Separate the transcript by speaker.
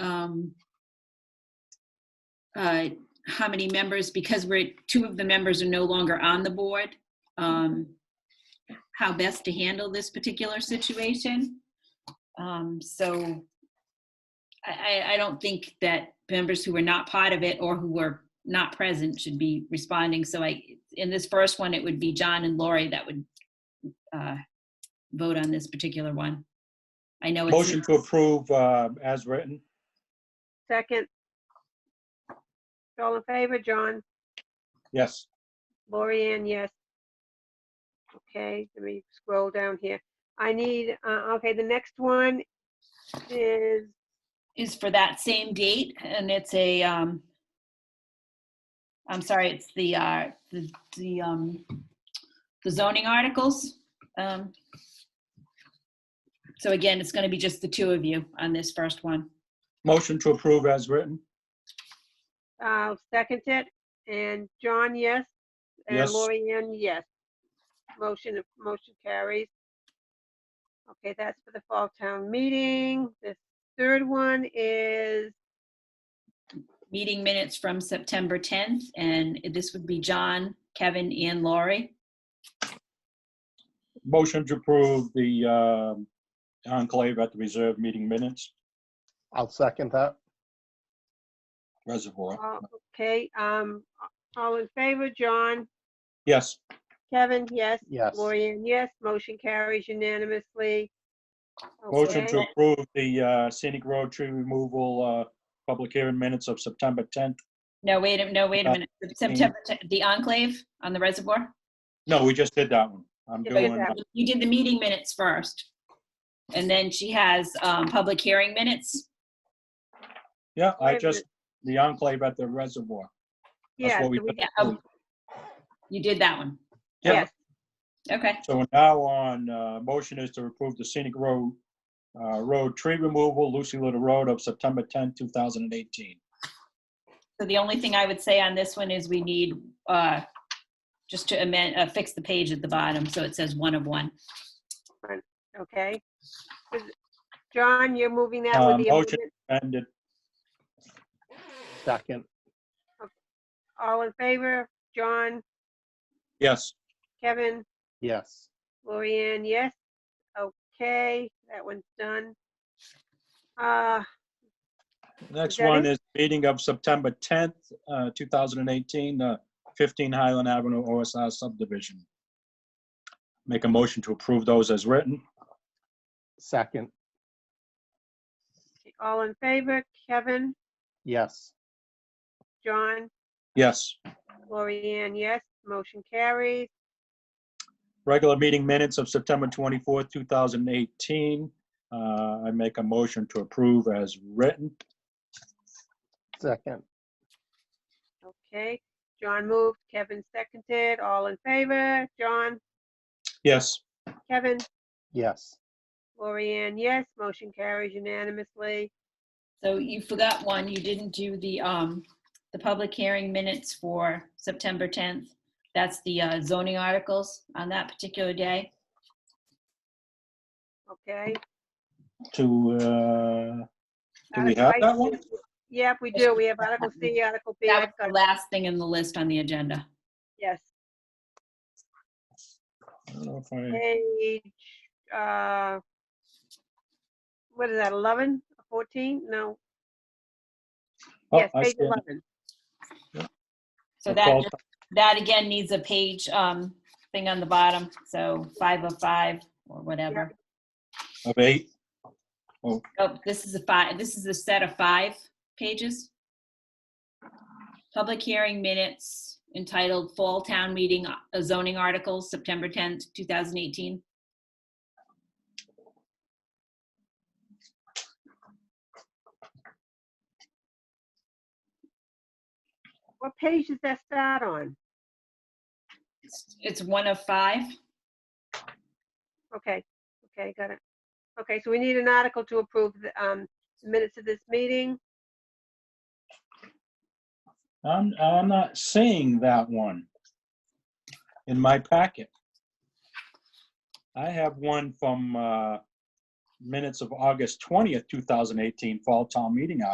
Speaker 1: um, uh, how many members, because we're, two of the members are no longer on the board, um, how best to handle this particular situation. Um, So I, I, I don't think that members who were not part of it or who were not present should be responding. So I, in this first one, it would be John and Lori that would uh, vote on this particular one. I know it's.
Speaker 2: Motion to approve uh, as written.
Speaker 3: Second. All in favor, John?
Speaker 2: Yes.
Speaker 3: Lori Ann, yes. Okay, let me scroll down here. I need, uh, okay, the next one is,
Speaker 1: is for that same date, and it's a, um, I'm sorry, it's the, uh, the, the, um, the zoning articles. Um, so again, it's gonna be just the two of you on this first one.
Speaker 2: Motion to approve as written.
Speaker 3: I'll second it, and John, yes? And
Speaker 2: Yes.
Speaker 3: Lori Ann, yes. Motion, motion carries. Okay, that's for the fall town meeting. The third one is,
Speaker 1: Meeting minutes from September tenth, and this would be John, Kevin, and Laurie.
Speaker 2: Motion to approve the um, enclave at the reserve meeting minutes
Speaker 4: I'll second that.
Speaker 2: reservoir.
Speaker 3: all- uh, okay, um, all in favor, John?
Speaker 2: Yes.
Speaker 3: Kevin, yes?
Speaker 4: Yes.
Speaker 3: Lorian, yes. Motion carries unanimously.
Speaker 2: Motion to
Speaker 3: Okay.
Speaker 2: approve the uh, scenic road tree removal uh, public hearing minutes of September 10th.
Speaker 1: No, wait, a no, wait a
Speaker 2: Uh,
Speaker 1: minute. September, 10th, the enclave on the reservoir?
Speaker 2: No, we just did that one. I'm
Speaker 3: Yeah, but
Speaker 2: doing,
Speaker 3: it's-
Speaker 1: You did the meeting minutes first. And then she has, um, public hearing minutes.
Speaker 2: yeah,
Speaker 3: Wait
Speaker 2: I
Speaker 3: a
Speaker 2: just, the enclave at the reservoir. That's
Speaker 3: Yes,
Speaker 2: what we
Speaker 3: we-
Speaker 1: Yeah, oh, you did that one.
Speaker 2: Yeah.
Speaker 3: yes,
Speaker 1: Okay,
Speaker 2: So now on, uh, motion is to approve the scenic road, uh, road tree removal, Lucy Little Road of September 10th, 2018.
Speaker 1: so the only thing I would say on this one is we need, uh, just to amend, uh, fix the page at the bottom, so it says one of one.
Speaker 3: okay. Is- John, you're moving that
Speaker 2: Um,
Speaker 3: with the
Speaker 2: motion.
Speaker 3: amendment?
Speaker 2: And it
Speaker 4: Second.
Speaker 3: All in favor? John,
Speaker 2: Yes,
Speaker 3: Kevin,
Speaker 4: Yes.
Speaker 3: Lorian, yes. Okay, that one's done. Uh,
Speaker 2: next
Speaker 3: that
Speaker 2: one
Speaker 3: it?
Speaker 2: is meeting of September 10th, uh, 2018, uh, 15 Highland Avenue OSR subdivision. Make a motion to approve those as written.
Speaker 4: Second.
Speaker 3: all in favor? Kevin,
Speaker 4: Yes.
Speaker 3: John,
Speaker 2: Yes,
Speaker 3: Lorian, yes. Motion carries.
Speaker 2: regular meeting minutes of September 24th, 2018. Uh, I make a motion to approve as written.
Speaker 4: Second.
Speaker 3: Okay, John moved, Kevin seconded. All in favor? John,
Speaker 2: Yes,
Speaker 3: Kevin,
Speaker 4: Yes.
Speaker 3: Lorian, yes. Motion carries unanimously.
Speaker 1: So you forgot one, you didn't do the, um, the public hearing minutes for September tenth. That's the uh, zoning articles on that particular day.
Speaker 3: Okay.
Speaker 2: to, uh, do we
Speaker 3: Article
Speaker 2: have
Speaker 3: I-
Speaker 2: that one?
Speaker 3: Yep, we do. We have Article C, Article B.
Speaker 1: That was
Speaker 3: I've
Speaker 1: the
Speaker 3: got-
Speaker 1: last thing in the list on the agenda.
Speaker 3: Yes.
Speaker 2: I don't know if I-
Speaker 3: Page, uh, what is that, 11, 14? No.
Speaker 2: Oh,
Speaker 3: Yes,
Speaker 2: I
Speaker 3: page
Speaker 2: see it.
Speaker 3: 11.
Speaker 1: So
Speaker 2: The
Speaker 1: that,
Speaker 2: fall-
Speaker 1: just- that again needs a page, um, thing on the bottom, so five of five or whatever.
Speaker 2: Of eight.
Speaker 1: Oh, this is a five, this is a set of five pages. Public hearing minutes entitled Fall Town Meeting uh, Zoning Articles, September 10th, 2018.
Speaker 3: What page does that start on?
Speaker 1: It's- It's one of five.
Speaker 3: Okay, okay, got it. Okay, so we need an article to approve the um, minutes of this meeting.
Speaker 2: I'm, I'm not seeing that one in my packet. I have one from uh, minutes of August 20th, 2018 Fall Town Meeting